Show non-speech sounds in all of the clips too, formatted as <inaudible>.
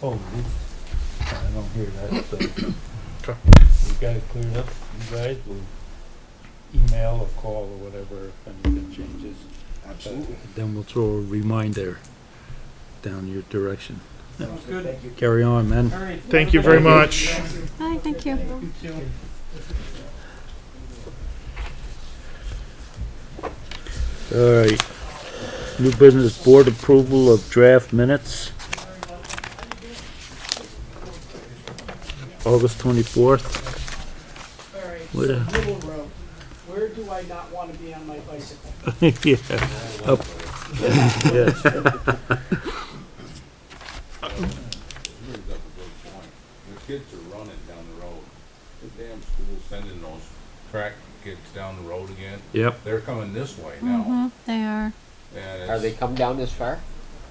told. I don't hear that, so. Okay. We got it cleared up, you guys will email or call or whatever if anything changes. Absolutely. Then we'll throw a reminder down your direction. Sounds good. Thank you. Carry on, man. Thank you very much. Hi, thank you. All right. New business board approval of draft minutes. August twenty-fourth. <laughs> Alright, so What a- Little Road, where do I not want to be on my bicycle? Yeah, up. Yeah. Here's up a good point. The kids are running down the road. The damn school's sending those track kids down the road again. Yep. They're coming this way now. Mm-hmm, they are. And Are they it's, come down this far?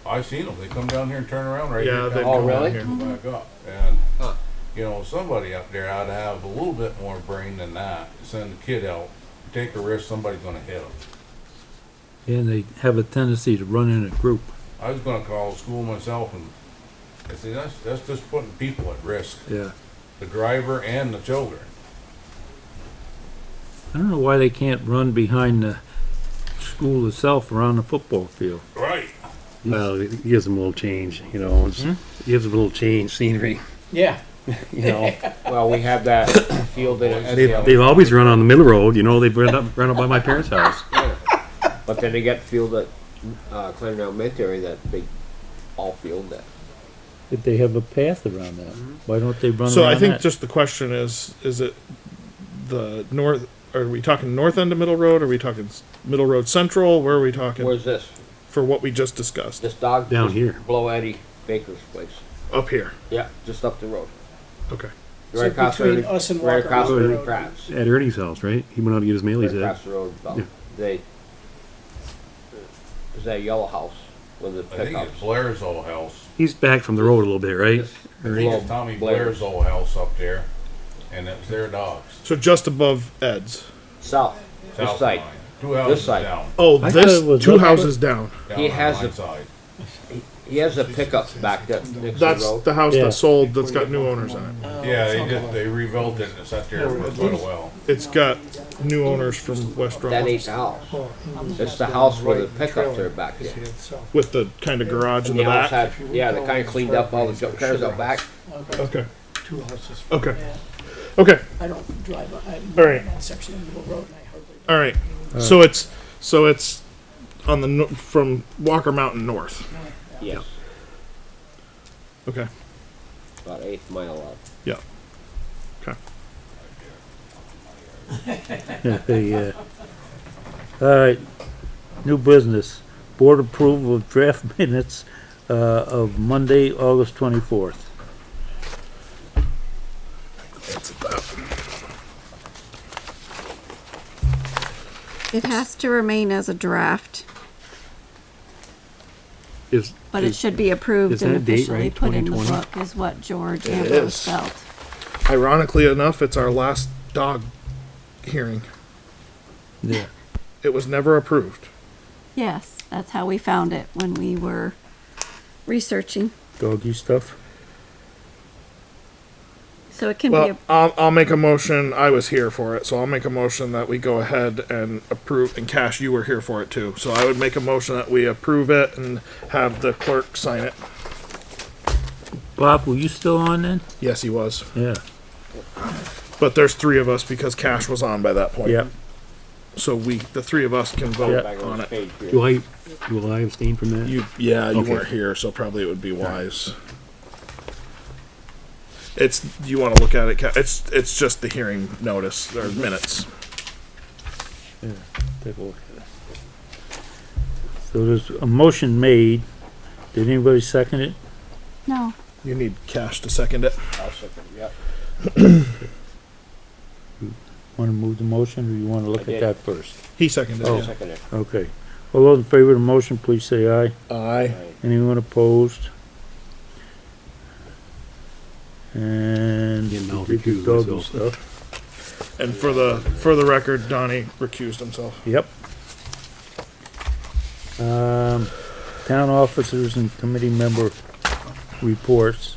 I've seen them. They come down here and turn around right Yeah, here. they down Oh, come really? down here. and Back up. And, Huh. you know, somebody up there ought to have a little bit more brain than that. Send the kid out, take a risk, somebody's gonna hit him. And they have a tendency to run in a group. I was gonna call school myself and, I see, that's, that's just putting people at risk, Yeah. the driver and the children. I don't know why they can't run behind the school itself around the football field. Right. Well, it gives them a little change, you know, it's, it gives them a little change scenery, Yeah. <laughs> you know. <laughs> Well, we have that <coughs> field in it They've, they've always run on the middle road, you know, they've run up, run up by my parents' house. but then they got field at uh, Clarendon Elementary, that big all field that. If they have a path around that, Mm-hmm. why don't they run So I around think that? just the question is, is it the north, are we talking north end of Middle Road? Are we talking s- Middle Road Central? Where are we talking Where's this? for what we just discussed? This dog Down just here. Below Eddie Baker's place. Up here. Yeah, just up the road. Okay. Right So across between from- us and right Walker across Road. from Pratt's. At Ernie's house, right? He went out to get his Right mailies across at. the road. about- Yeah. They. Is that yellow house with the I think it's pickups? Blair's old house. He's back from the road a little bit, right? Yes. I think it's Tommy Blair. Blair's old house up there, and it was their dogs. So just above Ed's. South. south This side. line. Two houses side. down. Oh, I thought this it was two up- houses down. down He on has my a- side. He has a pickup back that next to the That's road. the house Yeah. that sold that's got new owners on it. Yeah, they just, they rebuilt it and it's up there for quite a while. It's got new owners from West That Rutland ain't the house. It's the house where the pickups are back there. with the kind of garage in the The back. outside, yeah, they kinda cleaned up all the junk cars out back. Okay. Two houses. Okay. Okay. I don't drive, on- I'm All right. on that section of Middle Road and I hardly. All right. So it's so it's on the no- from Walker Mountain north. Yes, Okay. about eighth mile out. Yeah. Yeah. uh, All right, new business. Board approval of draft <laughs> minutes, uh, of Monday, August twenty-fourth. It has to remain as a draft, Is, but it should be approved is and that date officially right? put in the 2020? book, is what George It Ambrose is. felt. Ironically enough, it's our last dog hearing. Yeah. It was never approved. Yes, that's how we found it when we were researching. Doggy stuff? So it can be, Well, a- I'll, I'll make a motion. I was here for it, so I'll make a motion that we go ahead and approve. And Cash, you were here for it too, so I would make a motion that we approve it and have the clerk sign it. Bob, were you still on then? Yes, he was. Yeah. But there's three of us because Cash was on by that point. Yep. So we, the three of us, can vote Back on this it. page here. do I, will I abstain from that? You, yeah, you Okay. weren't here, so probably it would be wise. It's you want to look at it. Ca- It's it's just the hearing notice or minutes. Take a look at it. So there's a motion made. Did anybody second it? no, You need cash to second it. I'll second, yep. Want to move the motion or you want to look at did. that first? He seconded I'll it. second it. Okay. All those in favor of the motion, please say aye. Aye. Anyone opposed? And Yeah, no, we did the recuse doggy myself. stuff. And for the for the record, Donnie recused himself. Yep. Um, town officers and committee member reports.